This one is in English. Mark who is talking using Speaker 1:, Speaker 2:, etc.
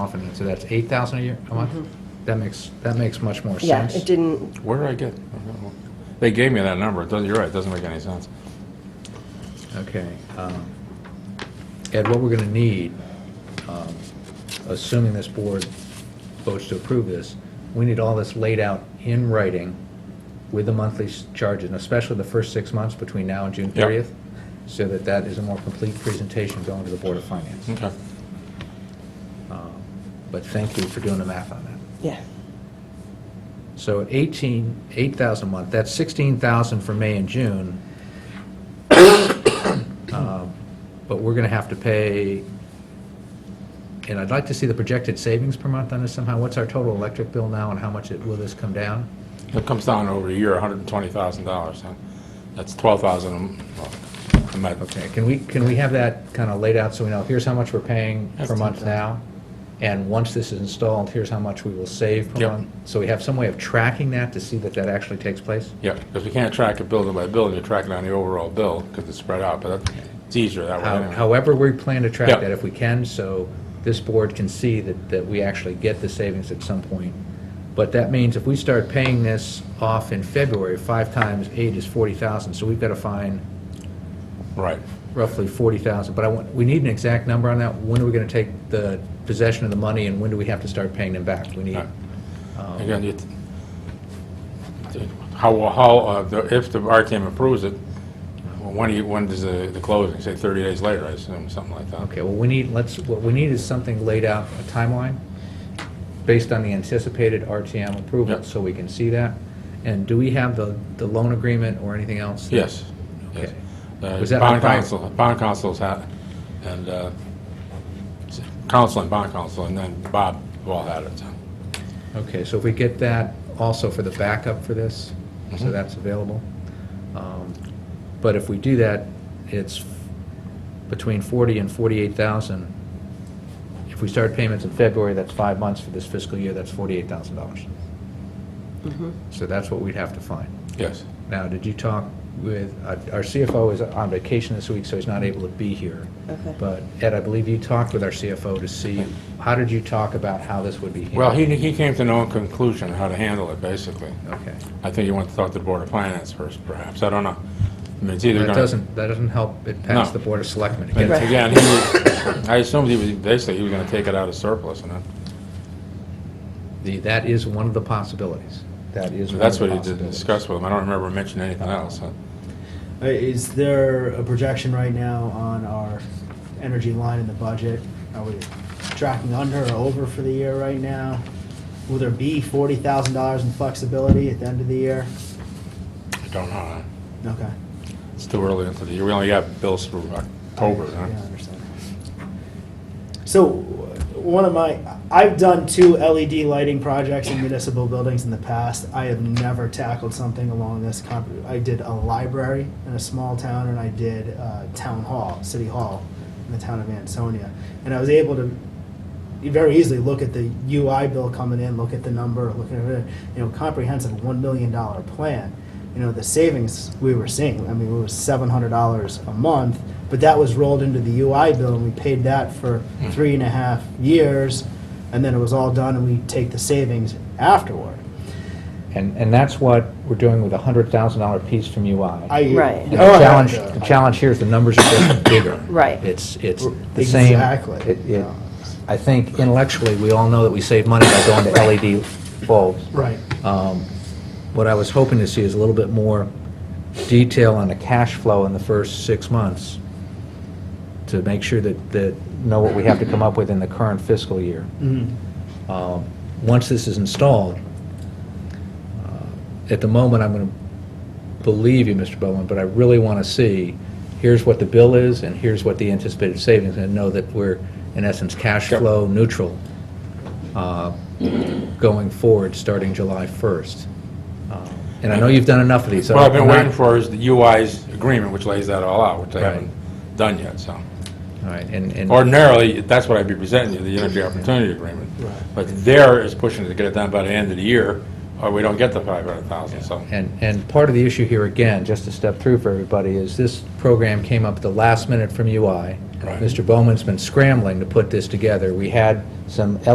Speaker 1: confident, so that's eight thousand a year, a month? That makes, that makes much more
Speaker 2: Mm-hmm. Yeah,
Speaker 1: sense.
Speaker 2: it didn't,
Speaker 3: Where did I get? They gave me that number. It doesn't- You're right, it doesn't make any sense.
Speaker 1: Okay. um, Ed, what we're going to need, um, assuming this board votes to approve this, we need all this laid out in writing with the monthly s- charges, and especially the first six months between now and June
Speaker 3: Yeah.
Speaker 1: 30th, so that that is a more complete presentation going to the Board of Finance.
Speaker 3: Okay.
Speaker 1: Um, But thank you for doing the math on that.
Speaker 2: yeah.
Speaker 1: So at 18, 8,000 a month, that's 16,000 for May and June. Um, But we're going to have to pay, and I'd like to see the projected savings per month on this somehow. What's our total electric bill now and how much it- will this come down?
Speaker 3: It comes down over a year, $120,000. huh? That's 12,000, a- well, I might-
Speaker 1: Okay, can we, can we have that kind of laid out so we know, here's how much we're paying per
Speaker 3: That's
Speaker 1: month now? And once this is installed, here's how much we will save per
Speaker 3: Yep.
Speaker 1: month? So we have some way of tracking that to see that that actually takes place?
Speaker 3: yeah, because we can't track it building by building, you track it on the overall bill because it's spread out, but that- it's easier that way.
Speaker 1: How-
Speaker 3: anyway.
Speaker 1: However, we plan to track
Speaker 3: Yeah.
Speaker 1: that if we can, so this board can see that, that we actually get the savings at some point. But that means if we start paying this off in February, five times eight is forty thousand, so we've got to find
Speaker 3: Right.
Speaker 1: roughly forty thousand. But I want, we need an exact number on that. When are we going to take the possession of the money and when do we have to start paying them back? We need,
Speaker 3: Right.
Speaker 1: Oh.
Speaker 3: Again, it, how, how, uh, the- if the RTM approves it, when do you, when does the the closing, say 30 days later, I assume, something like that?
Speaker 1: okay, well, we need, let's, what we need is something laid out, a timeline, based on the anticipated RTM approval,
Speaker 3: Yeah.
Speaker 1: so we can see that. And do we have the, the loan agreement or anything else? that-
Speaker 3: Yes. yes.
Speaker 1: Okay.
Speaker 3: Uh,
Speaker 1: Was that
Speaker 3: Bond
Speaker 1: on Friday?
Speaker 3: council, bond council's had, and, uh, s- council and bond council, and then Bob all had it. so.
Speaker 1: Okay, so if we get that also for the backup for this, so that's available. Um, But if we do that, it's between 40 and 48,000. If we start payments in February, that's five months for this fiscal year, that's $48,000. So that's what we'd have to find.
Speaker 3: Yes.
Speaker 1: Now, did you talk with, uh, our CFO is on vacation this week, so he's not able to be here.
Speaker 2: Okay.
Speaker 1: But Ed, I believe you talked with our CFO to see, how did you talk about how this would be handled?
Speaker 3: Well, he, he came to no conclusion how to handle it, basically.
Speaker 1: Okay.
Speaker 3: I think he went to talk to the Board of Finance first, perhaps, I don't know. I mean, it's either
Speaker 1: That
Speaker 3: gonna...
Speaker 1: doesn't, that doesn't help it pass
Speaker 3: No.
Speaker 1: the Board of Selectmen. It
Speaker 3: And
Speaker 1: gets-
Speaker 2: Right.
Speaker 3: Again, he was, I assumed he was, basically, he was gonna take it out of surplus, and that-
Speaker 1: the- That is one of the possibilities. That is one of
Speaker 3: that's
Speaker 1: the
Speaker 3: what he did
Speaker 1: possibilities.
Speaker 3: discuss with him. I don't remember mentioning anything else. huh?
Speaker 4: Uh, Is there a projection right now on our energy line in the budget? Are we tracking under or over for the year right now? Will there be forty thousand dollars in flexibility at the end of the year?
Speaker 3: I don't know. huh?
Speaker 4: Okay.
Speaker 3: It's too early into the year. We only got bills for October,
Speaker 4: Yeah,
Speaker 3: huh?
Speaker 4: I understand. So, one of my, I've done two LED lighting projects in municipal buildings in the past. I have never tackled something along this, comp- I did a library in a small town, and I did uh, town hall, city hall, in the town of Ansonia. And I was able to very easily look at the UI bill coming in, look at the number, look at, it, you know, comprehensive one million dollar plan. You know, the savings we were seeing, I mean, it was seven hundred dollars a month, but that was rolled into the UI bill and we paid that for
Speaker 1: Mm.
Speaker 4: three and a half years. And then it was all done and we take the savings afterward.
Speaker 1: And, and that's what we're doing with a $100,000 piece from UI.
Speaker 4: I.
Speaker 2: Right.
Speaker 1: And
Speaker 4: Oh,
Speaker 1: The
Speaker 4: yeah.
Speaker 1: challenge, the challenge here is the numbers are just bigger.
Speaker 2: Right.
Speaker 1: It's, it's the same.
Speaker 4: Exactly.
Speaker 1: it- it- I think intellectually, we all know that we save money by going to LED bulbs.
Speaker 4: Right.
Speaker 1: Um, What I was hoping to see is a little bit more detail on the cash flow in the first six months to make sure that, that, know what we have to come up with in the current fiscal year.
Speaker 3: Mm-hmm.
Speaker 1: Um, Once this is installed, uh, at the moment, I'm going to believe you, Mr. Bowman, but I really want to see, here's what the bill is, and here's what the anticipated savings, and know that we're, in essence, cash
Speaker 3: Yep.
Speaker 1: flow neutral uh, going forward, starting July 1st. Uh, And I know you've done enough of these. so
Speaker 3: What I've been
Speaker 1: I'm not-
Speaker 3: waiting for is the UI's agreement, which lays that all out, which they
Speaker 1: Right.
Speaker 3: haven't done yet, so.
Speaker 1: All right, and, and...
Speaker 3: Ordinarily, that's what I'd be presenting you, the energy opportunity agreement.
Speaker 4: Right.
Speaker 3: But there is pushing to get it done by the end of the year, or we don't get the 500,000, so.
Speaker 1: And, and part of the issue here, again, just to step through for everybody, is this program came up at the last minute from UI.
Speaker 3: Right.
Speaker 1: Mr. Bowman's been scrambling to put this together. We had some